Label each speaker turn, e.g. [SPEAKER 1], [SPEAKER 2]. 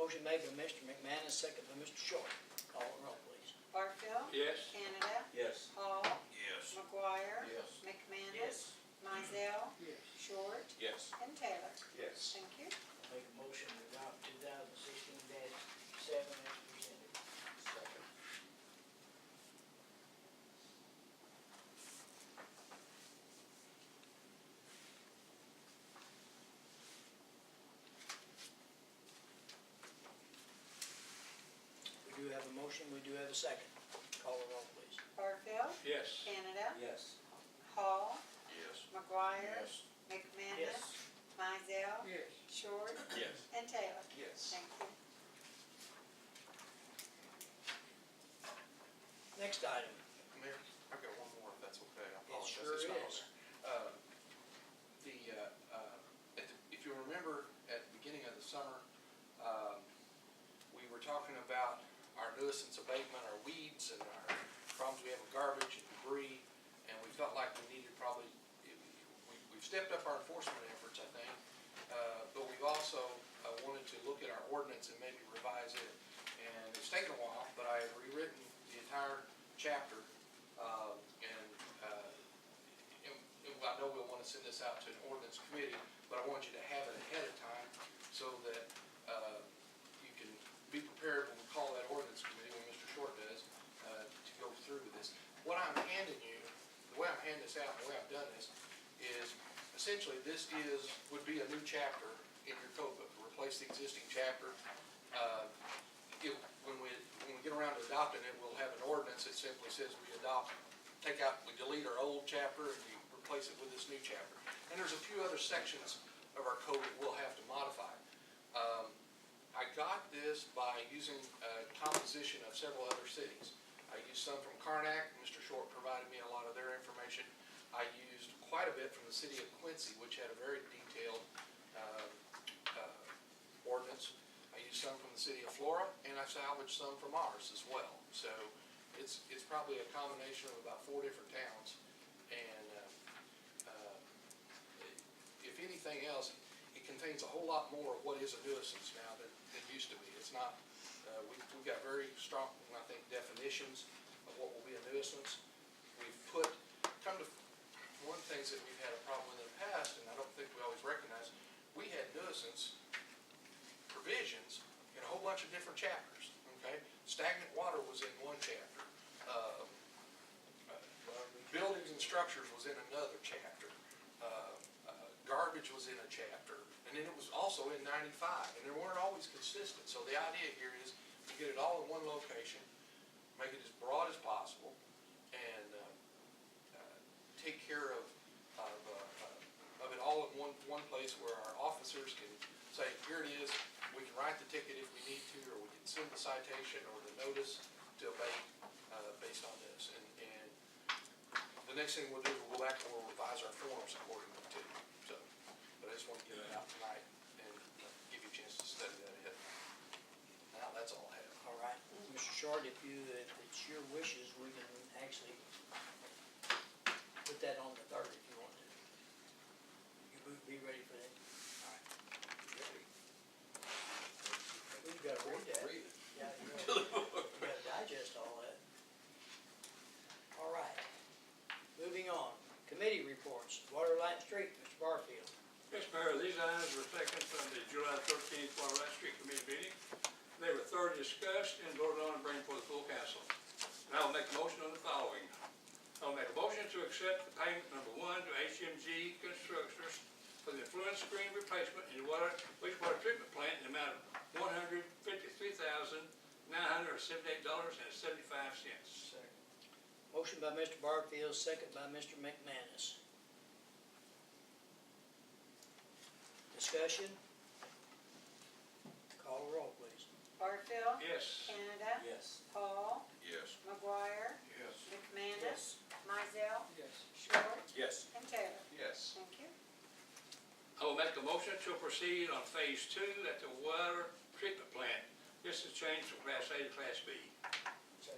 [SPEAKER 1] Motion made by Mr. McManus, second by Mr. Short. Call the roll, please.
[SPEAKER 2] Barfield.
[SPEAKER 3] Yes.
[SPEAKER 2] Canada.
[SPEAKER 4] Yes.
[SPEAKER 2] Hall.
[SPEAKER 3] Yes.
[SPEAKER 2] McGuire.
[SPEAKER 4] Yes.
[SPEAKER 2] McManus. Mizell.
[SPEAKER 1] Yes.
[SPEAKER 2] Short.
[SPEAKER 4] Yes.
[SPEAKER 2] And Taylor.
[SPEAKER 4] Yes.
[SPEAKER 2] Thank you.
[SPEAKER 1] Make a motion to adopt two thousand sixteen seven as presented.
[SPEAKER 4] Second.
[SPEAKER 1] We do have a motion, we do have a second. Call the roll, please.
[SPEAKER 2] Barfield.
[SPEAKER 3] Yes.
[SPEAKER 2] Canada.
[SPEAKER 4] Yes.
[SPEAKER 2] Hall.
[SPEAKER 3] Yes.
[SPEAKER 2] McGuire. McManus. Mizell.
[SPEAKER 3] Yes.
[SPEAKER 2] Short.
[SPEAKER 4] Yes.
[SPEAKER 2] And Taylor.
[SPEAKER 4] Yes.
[SPEAKER 2] Thank you.
[SPEAKER 1] Next item.
[SPEAKER 5] Mayor, I've got one more, if that's okay. I
[SPEAKER 1] It
[SPEAKER 5] apologize.
[SPEAKER 1] sure
[SPEAKER 5] It's not on
[SPEAKER 1] is.
[SPEAKER 5] there. Uh, The, uh, uh, at the- if you remember, at the beginning of the summer, um, we were talking about our nuisance abatement, our weeds and our problems we have with garbage and debris, and we felt like we needed probably, we- we've stepped up our enforcement efforts, I think, uh, but we've also uh, wanted to look at our ordinance and maybe revise it. And it's taken a while, but I have rewritten the entire chapter, uh, and uh, and and I know we'll want to send this out to an ordinance committee, but I want you to have it ahead of time so that uh, you can be prepared when we call that ordinance committee, when Mr. Short does, uh, to go through with this. What I'm handing you, the way I'm handing this out, the way I've done this, is essentially this is, would be a new chapter in your code book, to replace the existing chapter. Uh, it- When we, when we get around to adopting it, we'll have an ordinance that simply says we adopt, take out, we delete our old chapter and we replace it with this new chapter. And there's a few other sections of our code that we'll have to modify. Um, I got this by using a composition of several other cities. I used some from Karnak, Mr. Short provided me a lot of their information. I used quite a bit from the city of Quincy, which had a very detailed um, uh, ordinance. I used some from the city of Flora, and I salvaged some from ours as well. So it's, it's probably a combination of about four different towns. And um, uh, if anything else, it contains a whole lot more of what is a nuisance now than it used to be. It's not, uh, we, we've got very strong, I think, definitions of what will be a nuisance. We've put, come to, one of the things that we've had a problem with in the past, and I don't think we always recognize, we had nuisance provisions in a whole bunch of different chapters, okay? Stagnant water was in one chapter. Um, Buildings and structures was in another chapter. Uh, uh, Garbage was in a chapter. And then it was also in 95, and they weren't always consistent. So the idea here is to get it all in one location, make it as broad as possible, and uh, uh, take care of, of, uh, uh, of it all in one, one place where our officers can say, here it is, we can write the ticket if we need to, or we can send the citation or the notice to abate uh, based on this. And, and the next thing we'll do, is we'll go back and we'll revise our forms accordingly too, so. But I just want to get it out tonight and give you a chance to study that ahead. Now, that's all I have.
[SPEAKER 1] All right, Mr. Short, if you, if it's your wishes, we can actually put that on the third if you want to. You would be ready for that? All right. We've got to read that.
[SPEAKER 5] Read it.
[SPEAKER 1] Yeah, you know, you gotta digest all that. All right, moving on. Committee reports, Water, Light, and Street, Mr. Barfield.
[SPEAKER 3] Mr. Mayor, these items were taken from the July thirteenth Water Rights Street Committee meeting. They were thoroughly discussed and voted on and bring before the full council. And I will make a motion on the following. I'll make a motion to accept the payment number one to HMG Constructors for the influence screen replacement in the water, wastewater treatment plant in the amount of one hundred fifty-three thousand, nine hundred seventy-eight dollars and seventy-five cents.
[SPEAKER 1] Second. Motion by Mr. Barfield, second by Mr. McManus. Discussion? Call the roll, please.
[SPEAKER 2] Barfield.
[SPEAKER 3] Yes.
[SPEAKER 2] Canada.
[SPEAKER 4] Yes.
[SPEAKER 2] Hall.
[SPEAKER 3] Yes.
[SPEAKER 2] McGuire.
[SPEAKER 3] Yes.
[SPEAKER 2] McManus. Mizell.
[SPEAKER 1] Yes.
[SPEAKER 2] Short.
[SPEAKER 4] Yes.
[SPEAKER 2] And Taylor.
[SPEAKER 4] Yes.
[SPEAKER 2] Thank you.
[SPEAKER 3] I will make a motion to proceed on phase two at the water treatment plant. This is changed from class A to class B.